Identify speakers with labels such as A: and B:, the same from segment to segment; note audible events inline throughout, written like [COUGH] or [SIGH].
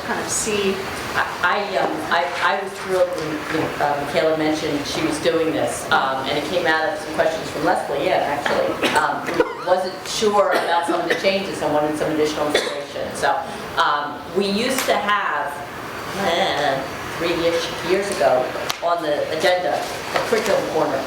A: kind of see,
B: I, um, I I was thrilled when uh, Michaela mentioned she was doing this, um, and it came out of some questions from Leslie, yeah, actually. Um, who Wasn't sure about some of the changes and wanted some additional information. So um, we used to have, eh, three-ish years ago, on the agenda, a curriculum corner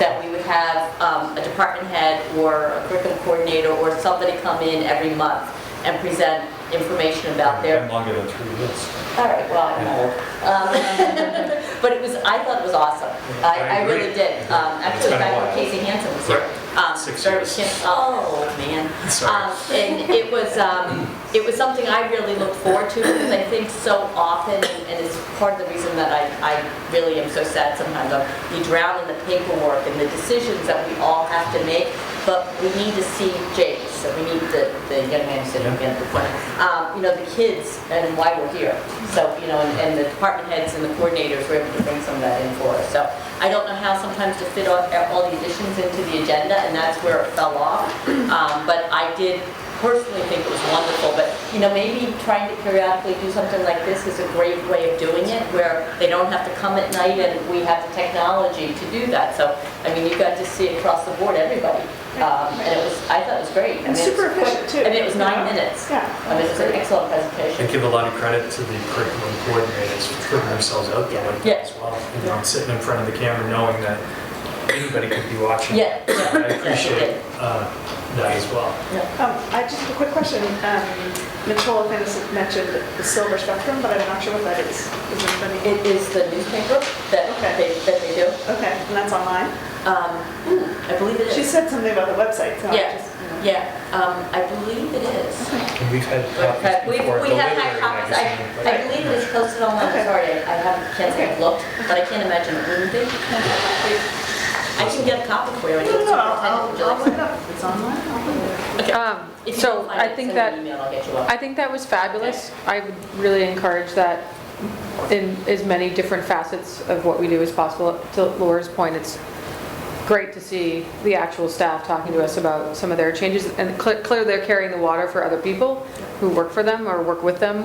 B: that we would have um, a department head or a curriculum coordinator or somebody come in every month and present information about their
C: I'm longer than three minutes.
B: all right, well, I'm old. Um, [LAUGHS] But it was, I thought it was awesome. I, I
C: I
B: really
C: agree.
B: did. Um,
C: It's
B: Actually,
C: been a
B: back when
C: while.
B: Casey Hansen was here. um,
C: Six
B: very
C: years.
B: kin- Oh, man.
C: Sorry.
B: Um, And it was, um, it was something I really looked forward to because I think so often, and it's part of the reason that I, I really am so sad sometimes, um, we drown in the paperwork and the decisions that we all have to make, but we need to see Jake, so we need the, the young man who said
C: Yeah.
B: again at the point, um, you know, the kids and why we're here. So, you know, and, and the department heads and the coordinators were able to bring some of that in for us. So I don't know how sometimes to fit all, all the additions into the agenda, and that's where it fell off. Um, but I did personally think it was wonderful, but, you know, maybe trying to periodically do something like this is a great way of doing it, where they don't have to come at night and we have the technology to do that. So, I mean, you got to see across the board, everybody. Um, and it was, I thought it was great.
A: And
B: I mean, it was
A: super
B: quick.
A: efficient, too.
B: I mean, it was nine minutes.
A: Yeah.
B: I mean, it was an excellent
C: I
B: presentation.
C: give a lot of credit to the curriculum coordinators for putting themselves out there like
B: Yeah.
C: that as well. You know, sitting in front of the camera knowing that anybody could be watching.
B: Yeah, yeah,
C: I
B: yeah,
C: appreciate
B: okay.
C: uh, that as well.
A: um, I just have a quick question. Um, Nicole Finnis mentioned the silver spectrum, but I'm not sure what that is. Is it funny?
B: It is the newspaper that
A: Okay.
B: they, that they do.
A: Okay, and that's online?
B: Um, I believe it
A: She
B: is.
A: said something about the website, so I
B: Yeah,
A: just, you know.
B: yeah, um, I believe it is.
C: And we've had
B: Okay,
C: copies
B: We,
C: before.
B: we
C: the
B: have had
C: literary
B: copies, I,
C: magazine, but-
B: I believe it is posted online,
A: Okay.
B: sorry, I haven't, can't say I've looked, but I can't imagine it wouldn't be. I can get a copy for you. I need
A: No,
B: to
A: no, I'll,
B: superintendent, would you
A: I'll I'll
B: like to-
A: look it up. It's online, I'll look it up.
D: Um,
B: If you
D: So
B: don't find
D: I
B: it,
D: think
B: send me an
D: that,
B: email, I'll get you one.
D: I think that was fabulous. I would really encourage that in as many different facets of what we do as possible. To Laura's point, it's great to see the actual staff talking to us about some of their changes. And cl- clearly, they're carrying the water for other people who work for them or work with them,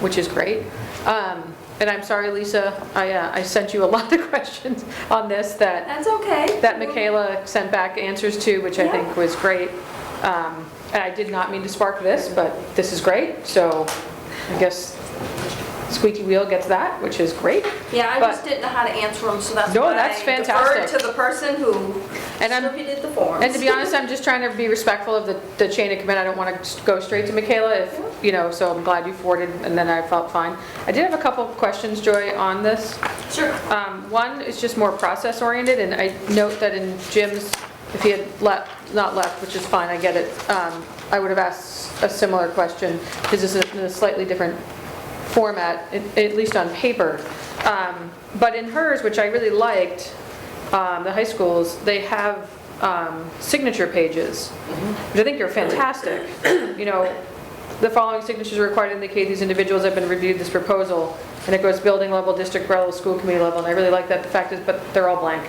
D: which is great. Um, And I'm sorry, Lisa, I uh, I sent you a lot of [LAUGHS] questions on this that
E: That's okay.
D: that Michaela sent back answers to, which I
E: Yeah.
D: think was great. Um, And I did not mean to spark this, but this is great, so I guess squeaky wheel gets that, which is great.
E: Yeah, I just
D: But-
E: didn't know how to answer them, so that's
D: No,
E: why
D: that's
E: I
D: fantastic.
E: deferred to the person who
D: And I'm-
E: distributed the forms.
D: And to be honest, I'm just trying to be respectful of the the chain of command. I don't want to go straight to Michaela if, you know, so I'm glad you forwarded, and then I felt fine. I did have a couple of questions, Joy, on this.
E: Sure.
D: Um, One is just more process oriented, and I note that in Jim's, if he had left, not left, which is fine, I get it, um, I would have asked a similar question, because this is in a slightly different format, at at least on paper. Um, But in hers, which I really liked, um, the high schools, they have um, signature pages, which I think are fantastic. You know, the following signatures are required to indicate these individuals have been reviewed this proposal. And it goes building level, district level, school committee level, and I really like that the fact is, but they're all blank.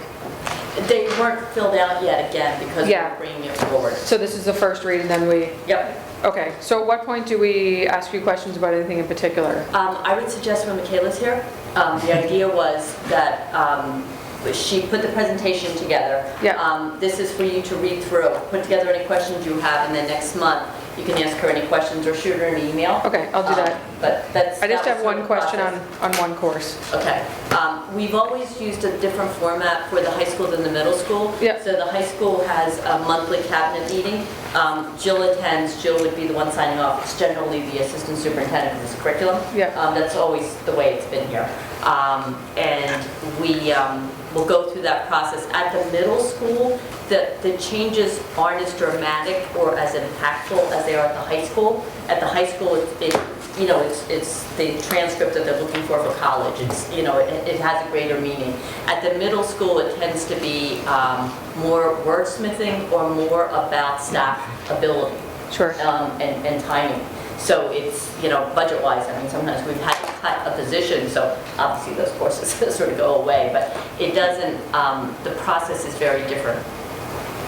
B: They weren't filled out yet again because
D: Yeah.
B: we're bringing it forward.
D: So this is the first read and then we,
B: Yep.
D: okay, so at what point do we ask you questions about anything in particular?
B: Um, I would suggest when Michaela's here, um, the idea was that um, she put the presentation together.
D: Yeah.
B: Um, This is for you to read through, put together any questions you have, and then next month, you can ask her any questions or shoot her an email.
D: Okay, I'll do
B: Um,
D: that.
B: But that's.
D: I
B: that
D: just
B: was
D: have
B: sort
D: one
B: of the
D: question on,
B: process.
D: on one course.
B: Okay. Um, We've always used a different format for the high school than the middle school.
D: Yeah.
B: So the high school has a monthly cabinet meeting. Um, Jill attends, Jill would be the one signing off. It's generally the assistant superintendent of this curriculum.
D: Yeah.
B: Um, That's always the way it's been here. Um, And we um, will go through that process. At the middle school, the, the changes aren't as dramatic or as impactful as they are at the high school. At the high school, it's- it, you know, it's, it's the transcript that they're looking for for college. It's, you know, it, it has a greater meaning. At the middle school, it tends to be um, more wordsmithing or more about staff ability
D: Sure.
B: um, and and timing. So it's, you know, budget-wise, I mean, sometimes we've had to cut a position, so obviously those courses [LAUGHS] sort of go away, but it doesn't, um, the process is very different.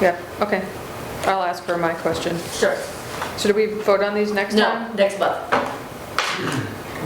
D: Yeah, okay. I'll ask her my question.
B: Sure.
D: So do we vote on these next
B: No,
D: time?
B: next month.